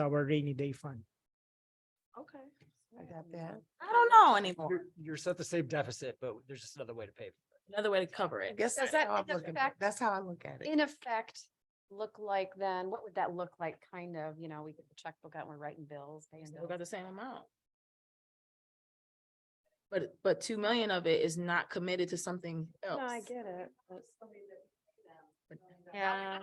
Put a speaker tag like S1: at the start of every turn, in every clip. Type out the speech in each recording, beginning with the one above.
S1: our rainy day fund.
S2: Okay.
S3: I got that.
S2: I don't know anymore.
S4: You're, you're set the same deficit, but there's just another way to pay. for it.
S2: Another way to cover
S3: I
S2: it.
S3: guess
S5: Does
S3: that's
S5: that
S3: how I'm
S5: in
S3: looking, at-
S5: effect-
S3: that's how I look at it.
S5: in effect, look like then, what would that look like, kind of, you know, we get the checkbook out, and uh, we're writing bills, paying
S2: Still got
S5: bills.
S2: the same amount. But, but two million of it is not committed to something else.
S5: No, I get it. but-
S2: Yeah.
S5: Yeah.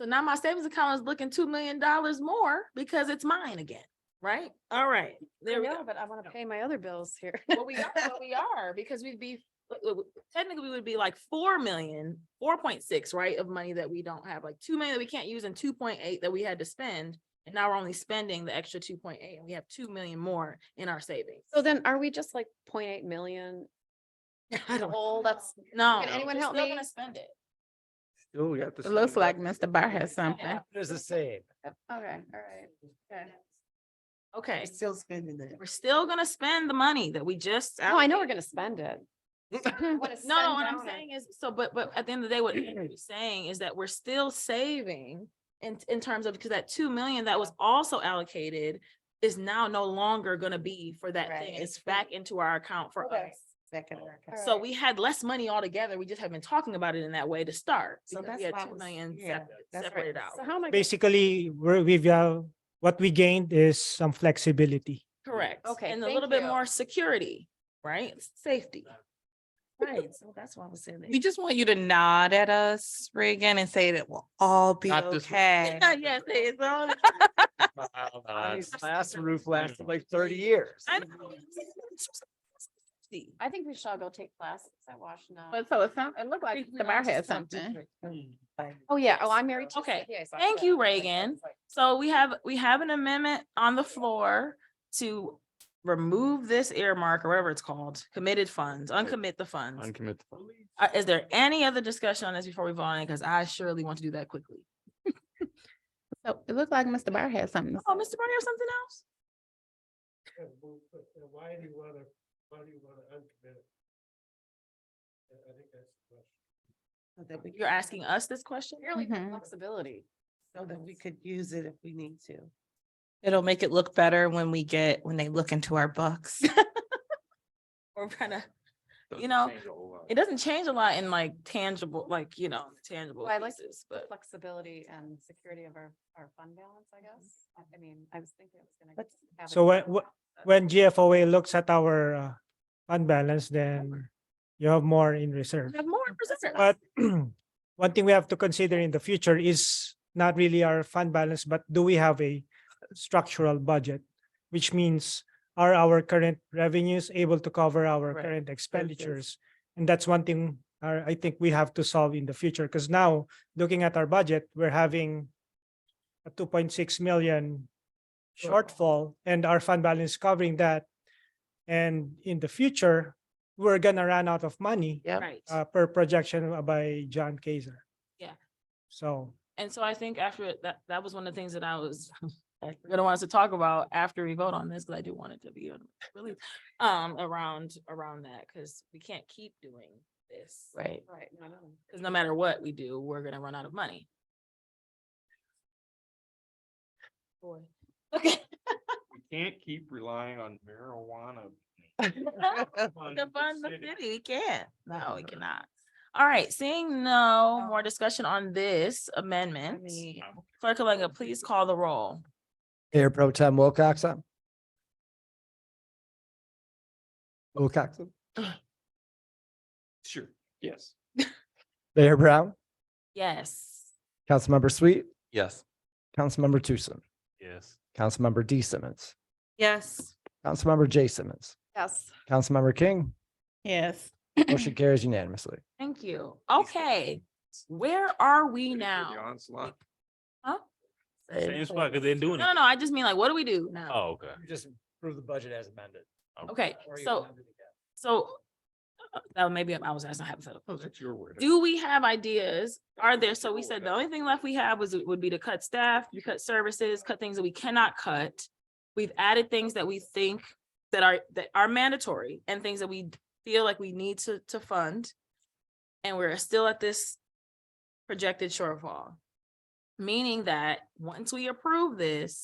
S2: So now my savings account is looking two million dollars more because it's mine again, right? All right,
S5: I
S2: there we
S5: know,
S2: go.
S5: but I want to pay my other bills here.
S2: But we are, but we are, because we'd be, w- w- technically, we would be like four million, four point six, right, of money that we don't have, like two million that we can't use and two point eight that we had to spend. And now we're only spending the extra two point eight, and we have two million more in our savings.
S5: So then are we just like 0.8 million?
S2: I don't,
S5: Oh, that's,
S2: no.
S5: Can anyone help
S2: We're still
S5: me?
S2: gonna Spend it.
S4: Oh, we got this.
S3: It looks like Mr. Bar has something.
S2: Yeah.
S4: It's the same.
S5: okay, all right. okay.
S2: Okay,
S3: We're still spending that.
S2: we're still gonna spend the money that we just.
S5: No, Oh, I know
S2: allocated.
S5: we're gonna spend it.
S2: No, no, what I'm saying is, so, but, but at the end of the day, what you're saying is that we're still saving in, in terms of, because that two million that was also allocated is now no longer gonna be for that
S3: Right,
S2: thing.
S3: it's
S2: It's
S3: free.
S2: back into our account for us.
S3: Second. America.
S5: All
S2: So
S5: right.
S2: we had less money altogether. We just have been talking about it in that way to start.
S3: So
S2: because we
S3: that's
S2: had
S3: why I
S2: two
S3: was-
S2: million
S3: yeah,
S2: separ-
S3: that's what-
S2: separated out.
S5: So how am I, gonna-
S1: Basically, we're, we've, uh, what we gained is some flexibility.
S2: Correct.
S5: Okay,
S2: And a
S5: thank
S2: little bit
S5: you.
S2: more security, right? Safety.
S3: Right, so that's why I was saying.
S6: We just want you to nod at us, Reagan, and say that we'll all be
S7: Not this one.
S6: okay.
S2: Yes, it's all.
S4: Uh, Last roof lasted like thirty years.
S2: I know.
S5: I think we should all go take classes at Washington.
S3: But so it sound, it looked like
S2: Think we
S3: Mr.
S2: all
S3: Bar
S2: just
S3: had
S2: sound
S3: something.
S5: Oh, yeah. Oh, I'm married to. a
S2: Okay,
S5: CPA, so I
S2: thank
S5: should-
S2: you,
S5: okay,
S2: Reagan.
S5: it's like-
S2: So we have, we have an amendment on the floor to remove this earmark or whatever it's called, committed funds, uncommit the funds.
S7: Uncommit.
S2: Uh, Is there any other discussion on this before we vote on it? Because I surely want to do that quickly.
S3: So it looked like Mr. Bar had something. to
S2: Oh,
S3: say.
S2: Mr. Barney, or something else?
S8: Why do you wanna, why do you wanna uncommit it? I think that's the question.
S3: So that we-
S2: You're asking us this question?
S5: You're like
S3: Mhm.
S5: flexibility.
S3: So that we could use it if we need to.
S6: It'll make it look better when we get, when they look into our books.
S2: Or kind of, you know, it doesn't change a lot in like tangible, like, you know, tangible
S5: Well, I like
S2: pieces,
S5: the
S2: but.
S5: flexibility and security of our, our fund balance, I guess. I- I mean, I was thinking it was gonna.
S3: But-
S5: have a
S1: So when-
S5: different amount, but-
S1: When GFOA looks at our, uh, fund balance, then you have more in reserve.
S2: we Have more reserves.
S1: But one thing we have to consider in the future is not really our fund balance, but do we have a structural budget? Which means are our current revenues able to cover our
S3: Right.
S1: current expenditures? And that's one thing uh, I think we have to solve in the future, because now, looking at our budget, we're having a two point six million shortfall and our fund balance covering that. And in the future, we're gonna run out of money
S3: Yep.
S2: Right.
S1: uh, per projection by John Kaiser.
S2: Yeah.
S1: So,
S2: And so I think after it- that, that was one of the things that I was gonna want us to talk about after we vote on this, because I do want it to be on- really um around around that, because we can't keep doing this.
S3: Right.
S5: Right, no, no.
S2: Because no matter what we do, we're gonna run out of money. Boy. Okay.
S7: We can't keep relying on marijuana. fund
S2: To
S7: the
S2: fund the
S7: city. Mm-hmm.
S2: city, we can't. No, we cannot. All right, seeing
S7: Oh.
S2: no more discussion on this amendment. Clerk Kalanga, please call the roll.
S4: Mayor Pro Tem Wilcox. um, Wilcox,
S7: Sure, yes.
S4: Mayor Brown,
S2: Yes.
S4: Councilmember Sweet,
S7: Yes.
S4: Councilmember Tucson,
S7: Yes.
S4: Councilmember D Simmons,
S6: Yes.
S4: Councilmember J Simmons,
S5: Yes,
S4: Councilmember King,
S3: Yes.
S4: motion carries unanimously.
S2: Thank you. Okay, where are we now?
S7: Onslaught.
S2: Huh?
S7: Same spot, cause they're
S2: No,
S7: doing
S2: no,
S7: it.
S2: no, I just mean like, what do we do now?
S7: Oh, okay.
S4: Just approve the budget as amended.
S7: Oh.
S2: Okay, so, so uh, that maybe I was asking hypothetical.
S7: Oh, that's your word.
S2: Do we have ideas? Are there, so we said the only thing left we have was, would be to cut staff, to cut services, cut things that we cannot cut. We've added things that we think that are, that are mandatory and things that we feel like we need to, to fund. And we're still at this projected shortfall. Meaning that once we approve this,